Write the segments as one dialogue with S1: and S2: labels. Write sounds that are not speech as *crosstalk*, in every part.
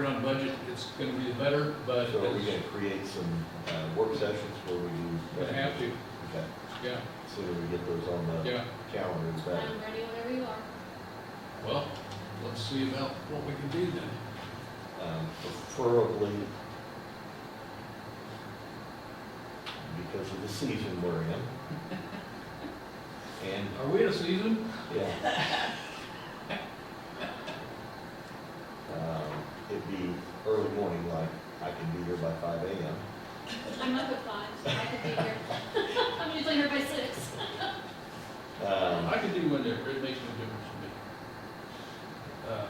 S1: on budget, it's gonna be better, but
S2: So are we
S1: it's,
S2: gonna create some, uh, work sessions where we do?
S1: we have to,
S2: Okay,
S1: yeah,
S2: so that we get those on the
S1: yeah.
S2: calendar, it's better.
S3: I'm ready whenever you are.
S1: Well, let's see about what we can do then.
S2: Um, preferably because of the season we're in. And,
S1: Are we in a season?
S2: yeah. Um, it'd be early morning, like, I can be here by five AM.
S3: I'm up at five, so I could be here. *laughs* I'm usually here by six.
S2: Um,
S1: I can do one there, it makes no difference to me. Uh,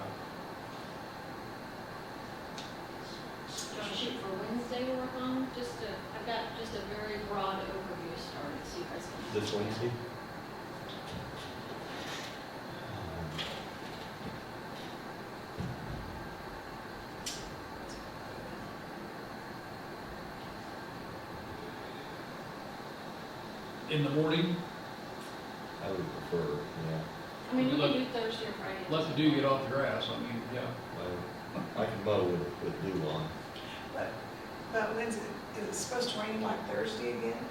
S3: Trying to shoot for Wednesday to work on, just to, I've got just a very broad overview started, so you guys can.
S2: This Wednesday? Um,
S1: In the morning,
S2: I would prefer, yeah,
S3: I mean, we can do Thursday or Friday.
S1: let the dew get off the grass, I mean, yeah.
S2: I- I can mow with, with dew on.
S4: But, but when's it, is it supposed to rain like Thursday again?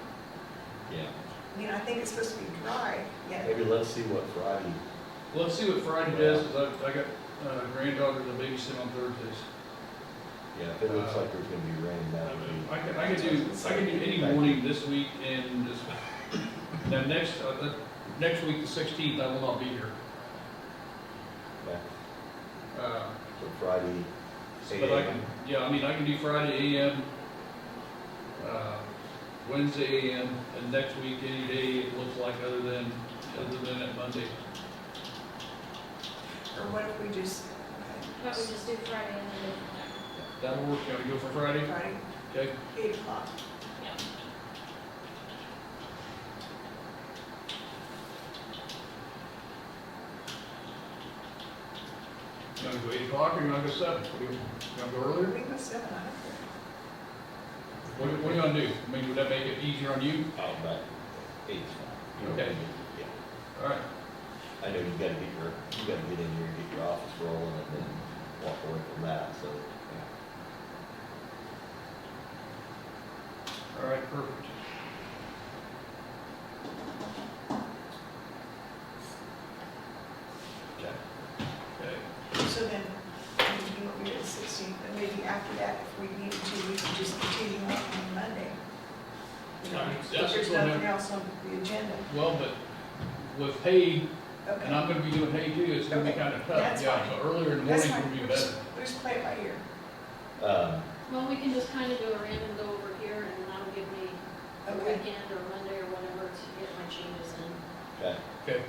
S2: Yeah.
S4: I mean, I think it's supposed to be dry, yet
S2: Maybe let's see what Friday,
S1: Let's see what Friday does, 'cause I, I got uh, granddaughter to babysit on Thursdays.
S2: yeah, if it looks like there's gonna be rain, that would be,
S1: I could, I could do, I could do any morning this week and this, *laughs* now next, uh, the, next week, the sixteenth, I will not be here.
S2: yeah,
S1: Uh,
S2: so Friday,
S1: But I can, yeah, I mean, I can do Friday AM, uh, Wednesday AM, and next week, any day it looks like other than, other than that Monday.
S4: or what if we just, okay,
S3: How about we just do Friday and then go from there?
S1: That'll work, you want to go for Friday?
S4: Friday,
S1: Okay,
S4: eight o'clock?
S3: Yeah.
S1: you want to go eight o'clock or you want to go seven? What do you, you want to go
S4: We
S1: earlier?
S4: go seven, I don't care.
S1: What, do- what do you want to do? I mean, would that make it easier on you?
S2: I'll back, eight's fine. You know,
S1: Okay.
S2: Yeah,
S1: All right,
S2: I know you gotta get your, you gotta get in here and get your office rolling and then walk away from that, so, yeah.
S1: all right, perfect.
S2: Okay.
S1: Okay,
S4: So then, we will be at sixteen, and maybe after that, if we need to, we can just continue on on Monday. You know,
S1: I mean,
S4: if
S1: that's
S4: There's
S1: what I'm-
S4: nothing else on the agenda,
S1: well, but with hay, and
S4: okay.
S1: I'm going to be doing hay too, it's going to be
S4: Okay,
S1: kind of tough.
S4: that's
S1: Yeah,
S4: fine.
S1: so earlier in the
S4: That's
S1: morning
S4: fine,
S1: would be
S4: we
S1: better.
S4: just, we just play it by ear,
S2: Um,
S3: Well, we can just kind of do a random go over here, and that'll give me a
S4: okay?
S3: weekend or Monday or whatever to get my changes in.
S2: okay,
S1: Okay,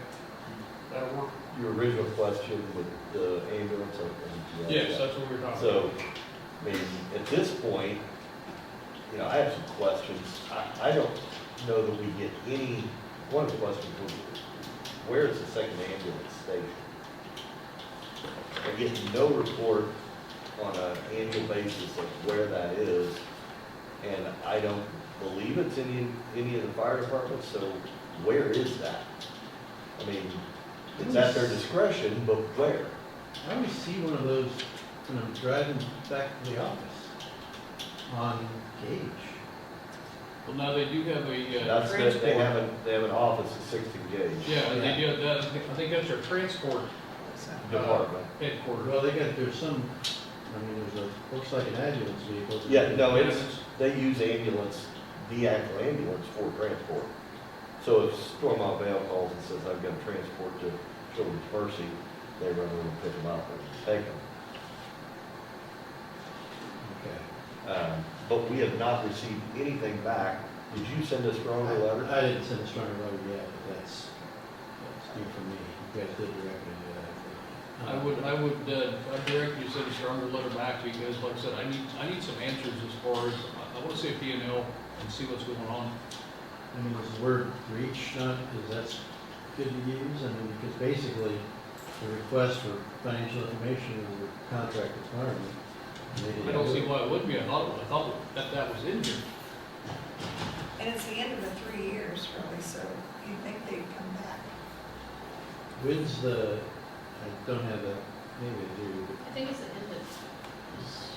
S1: that'll work.
S2: your original question with the ambulance, I think you asked
S1: Yes,
S2: that.
S1: that's what we we're talking about.
S2: So, I mean, at this point, you know, I have some questions. I, I don't know that we get any, one of the questions was, where is the second ambulance station? I get no report on an annual basis of where that is, and I don't believe it's in any, any of the fire departments, so where is that? I mean, it's at their discretion, but where?
S5: I always see one of those when I'm driving back to the office on Gage.
S1: Well, now they do have a, uh,
S2: That's, that- they have an, they have an office at sixty gauge.
S1: yeah, they do, have that. I think that's their transport
S4: So-
S2: Department.
S1: headquarters.
S5: Well, they got, there's some, I mean, there's a, looks like an ambulance vehicle.
S2: Yeah, no, it's, they use ambulance, the actual ambulance for transport. So if Stormont Vale calls and says, I've got transport to Children's Mercy, they run over and pick them up and take them.
S5: Okay.
S2: Um, but we have not received anything back. Did you send us your own letter?
S5: I didn't send a strong letter yet, but that's, that's new for me. You guys did direct me to that.
S1: I would, I would, uh, I direct you to send a stronger letter back because like I said, I need, I need some answers as far as, I- I want to see a P and L and see what's going on.
S5: I mean, is the word breach not, is that's good to use? I mean, because basically, the request for financial information is a contract requirement. and they didn't
S1: I don't
S5: do
S1: see
S5: it.
S1: why it would be. I thought, I thought that that was in here.
S4: And it's the end of the three years, really, so you'd think they'd come back.
S5: When's the, I don't have that, maybe I do, but
S3: I think it's the end of